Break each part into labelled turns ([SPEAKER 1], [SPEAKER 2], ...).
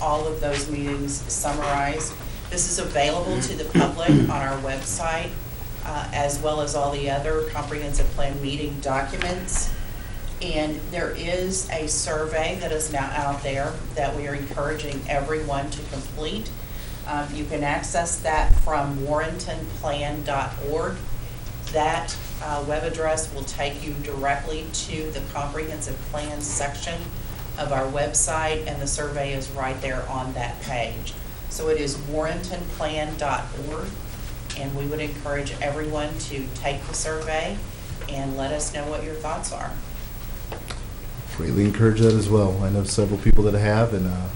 [SPEAKER 1] all of those meetings summarized. This is available to the public on our website, uh, as well as all the other comprehensive plan meeting documents. And there is a survey that is now out there that we are encouraging everyone to complete. Um, You can access that from warrentonplan.org. That uh, web address will take you directly to the comprehensive plan section of our website, and the survey is right there on that page. So it is warrentonplan.org, and we would encourage everyone to take the survey and let us know what your thoughts are.
[SPEAKER 2] Greatly encourage that as well. I know several people that have, and uh,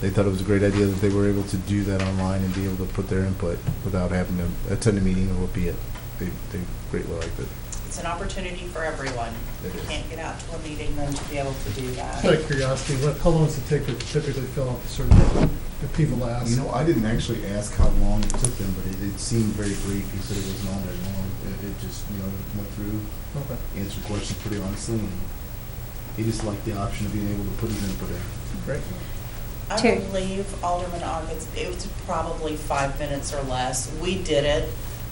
[SPEAKER 2] they thought it was a great idea that they were able to do that online and be able to put their input without having to attend a meeting or be it. They, they greatly liked it.
[SPEAKER 1] It's an opportunity for everyone. If
[SPEAKER 2] It
[SPEAKER 1] you
[SPEAKER 2] is.
[SPEAKER 1] can't get out to a meeting, then to be able to do
[SPEAKER 3] Out of
[SPEAKER 1] that.
[SPEAKER 3] curiosity, what, how long does it take to typically fill out the survey? If people
[SPEAKER 4] You
[SPEAKER 3] ask,
[SPEAKER 4] know, I didn't actually ask how long it took them, but it, it seemed very brief. He said it was not very long. It, it just, you know, went through,
[SPEAKER 3] okay,
[SPEAKER 4] answered questions pretty honestly, and he just liked the option of being able to put his input in.
[SPEAKER 3] great.
[SPEAKER 1] I
[SPEAKER 5] Terry.
[SPEAKER 1] believe Alderman August, it was probably five minutes or less. We did it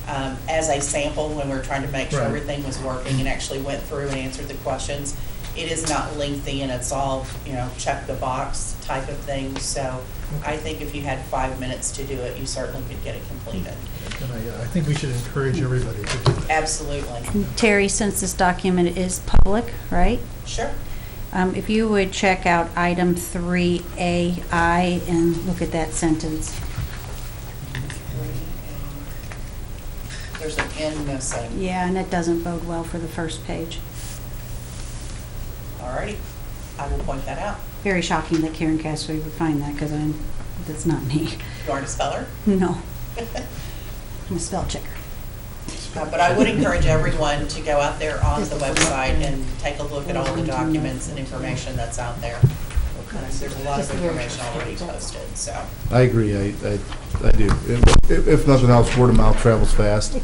[SPEAKER 1] um, as a sample when we were trying to make sure
[SPEAKER 3] Right.
[SPEAKER 1] everything was working and actually went through and answered the questions. It is not lengthy and it's all, you know, check the box type of thing. So I think if you had five minutes to do it, you certainly could get it completed.
[SPEAKER 3] And I, uh, I think we should encourage everybody to do that.
[SPEAKER 1] Absolutely.
[SPEAKER 5] Terry, since this document is public, right?
[SPEAKER 1] Sure.
[SPEAKER 5] Um, If you would check out item 3AI and look at that sentence.
[SPEAKER 1] There's an N missing.
[SPEAKER 5] Yeah, and it doesn't bode well for the first page.
[SPEAKER 1] All righty, I will point that out.
[SPEAKER 5] Very shocking that Karen Cassidy would find that, because I'm, that's not me.
[SPEAKER 1] You aren't a speller.
[SPEAKER 5] No,
[SPEAKER 1] Uh,
[SPEAKER 5] I'm a spell checker.
[SPEAKER 1] But I would encourage everyone to go out there on the website and take a look at all the documents and information that's out there. Because There's a lot of information already posted, so.
[SPEAKER 2] I agree. I, I, I do. If, if- if nothing else, word of mouth travels fast.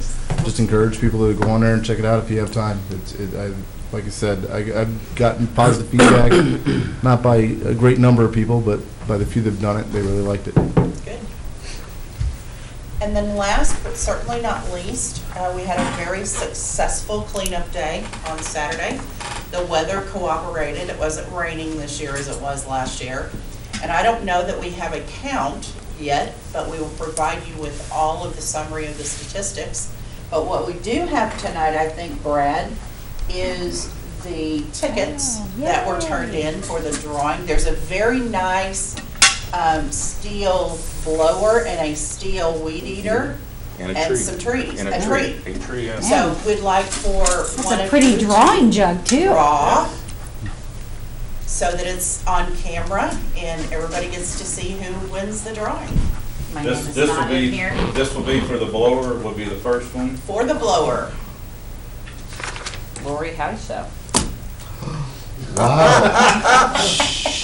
[SPEAKER 2] Just encourage people to go on there and check it out if you have time. It's, it, I, like I said, I, I've gotten positive feedback, not by a great number of people, but by the few that've done it, they really liked it.
[SPEAKER 1] Good. And then last, but certainly not least, uh, we had a very successful cleanup day on Saturday. The weather cooperated, it wasn't raining this year as it was last year. And I don't know that we have a count yet, but we will provide you with all of the summary of the statistics. But what we do have tonight, I think, Brad, is the tickets that were turned in for the drawing. There's a very nice um, steel blower and a steel weed eater.
[SPEAKER 6] And a tree.
[SPEAKER 1] And some trees,
[SPEAKER 6] And
[SPEAKER 1] a
[SPEAKER 6] tree.
[SPEAKER 1] tree.
[SPEAKER 6] A tree, yes.
[SPEAKER 1] So we'd like for one
[SPEAKER 5] That's a
[SPEAKER 1] of
[SPEAKER 5] pretty
[SPEAKER 1] you to
[SPEAKER 5] drawing jug, too.
[SPEAKER 1] draw so that it's on camera and everybody gets to see who wins the drawing
[SPEAKER 5] My name
[SPEAKER 7] This,
[SPEAKER 5] is
[SPEAKER 7] this will
[SPEAKER 5] not in
[SPEAKER 7] be,
[SPEAKER 5] here.
[SPEAKER 7] this will be for the blower, will be the first one.
[SPEAKER 1] for the blower.
[SPEAKER 8] Lori Houseo.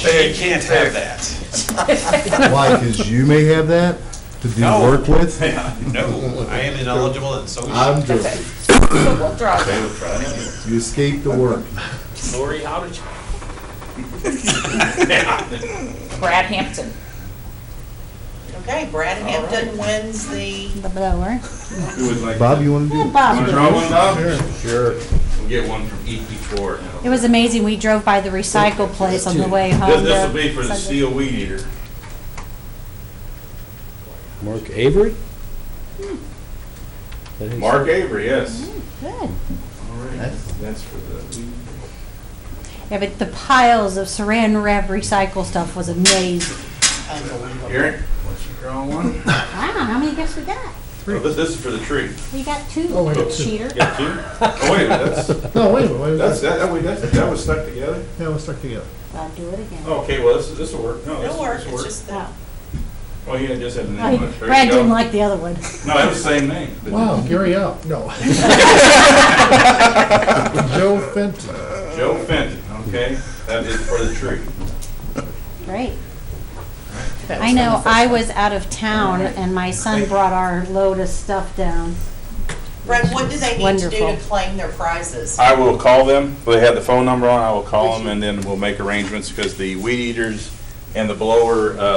[SPEAKER 7] They can't have that.
[SPEAKER 2] Why? Because you may have that to do
[SPEAKER 7] No.
[SPEAKER 2] work with?
[SPEAKER 7] No, I am ineligible and so.
[SPEAKER 2] I'm joking.
[SPEAKER 8] So we'll draw that.
[SPEAKER 2] You escaped the work.
[SPEAKER 7] Lori, how did you?
[SPEAKER 8] Brad Hampton.
[SPEAKER 1] Okay, Brad Hampton wins the,
[SPEAKER 5] The blower.
[SPEAKER 7] Who would like?
[SPEAKER 2] Bob, you want to do
[SPEAKER 5] Well,
[SPEAKER 2] it?
[SPEAKER 7] Want to draw
[SPEAKER 5] Bob,
[SPEAKER 7] one, Bob?
[SPEAKER 2] Sure.
[SPEAKER 7] We'll get one from E each before.
[SPEAKER 5] it was amazing. We drove by the recycle place on Oh, the way
[SPEAKER 7] This,
[SPEAKER 5] home.
[SPEAKER 7] this
[SPEAKER 5] to-
[SPEAKER 7] will be for the E steel weed eater.
[SPEAKER 9] Mark Avery? That is-
[SPEAKER 7] Hmm. Mark Avery, yes.
[SPEAKER 5] Good.
[SPEAKER 7] All right, that's for the weed.
[SPEAKER 5] Yeah, but the piles of saran wrap recycle stuff was amazing.
[SPEAKER 1] unbelievable.
[SPEAKER 7] Eric, what's your draw one?
[SPEAKER 5] Wow, how many gifts we got?
[SPEAKER 7] Oh, This, this is for the tree.
[SPEAKER 5] We got two.
[SPEAKER 3] Oh, we got two.
[SPEAKER 5] Cheater.
[SPEAKER 7] You got two? Oh, wait a minute, that's,
[SPEAKER 3] No, wait a minute, wait a minute.
[SPEAKER 7] that's, that, that way- that, that was stuck together? Oh,
[SPEAKER 3] Yeah, let's start together.
[SPEAKER 5] I'll do it again.
[SPEAKER 7] Okay, well, this, this'll work. No, this,
[SPEAKER 1] It'll work,
[SPEAKER 7] this will
[SPEAKER 1] it's
[SPEAKER 7] work.
[SPEAKER 1] just that.
[SPEAKER 5] Oh.
[SPEAKER 7] Oh, yeah, just had the name on it. There
[SPEAKER 5] Brad
[SPEAKER 7] you go.
[SPEAKER 5] didn't like the other one.
[SPEAKER 7] No, it was the same name. but-
[SPEAKER 3] Wow, Gary out, no. Joe Fenton.
[SPEAKER 7] Joe Fenton, okay, that is for the tree.
[SPEAKER 5] Great. I know, I was out of town and my son brought our load of stuff down.
[SPEAKER 1] Brad, what do they need to do to
[SPEAKER 5] Wonderful.
[SPEAKER 1] claim their prizes?
[SPEAKER 7] I will call them, they have the phone number on, I will call them, and then we'll make arrangements, because the weed eaters and the blower, uh,